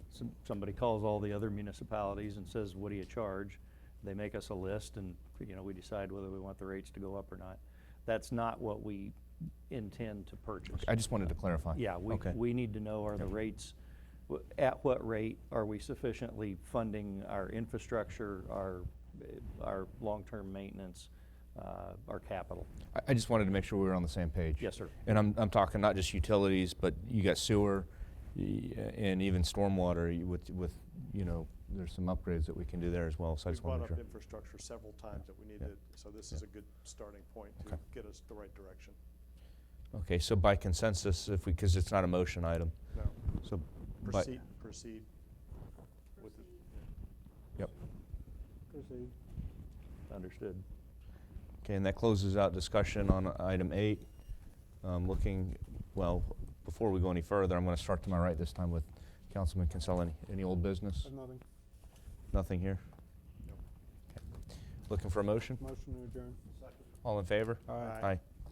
some- somebody calls all the other municipalities and says, what do you charge? They make us a list and, you know, we decide whether we want the rates to go up or not. That's not what we intend to purchase. I just wanted to clarify. Yeah, we, Okay. we need to know are the rates, w- at what rate are we sufficiently funding our infrastructure, our, eh, our long-term maintenance, uh, our capital? I- I just wanted to make sure we were on the same page. Yes, sir. And I'm, I'm talking not just utilities, but you got sewer y- and even stormwater you- with, with, you know, there's some upgrades that we can do there as well, so I We've just want brought to make sure. up infrastructure several times that we need to, so this is a good starting point to Okay. get us the right direction. Okay, so by consensus, if we, because it's not a motion item, No, so. by- proceed, proceed. with the- Yep. Understood. Okay, and that closes out discussion on item eight. Um, looking, well, before we go any further, I'm going to start to my right this time with Councilman Kinsella. Any, any old business? Nothing. Nothing here? Nope. Looking for a motion? Motion to adjourn. All in favor? Aye. Aye.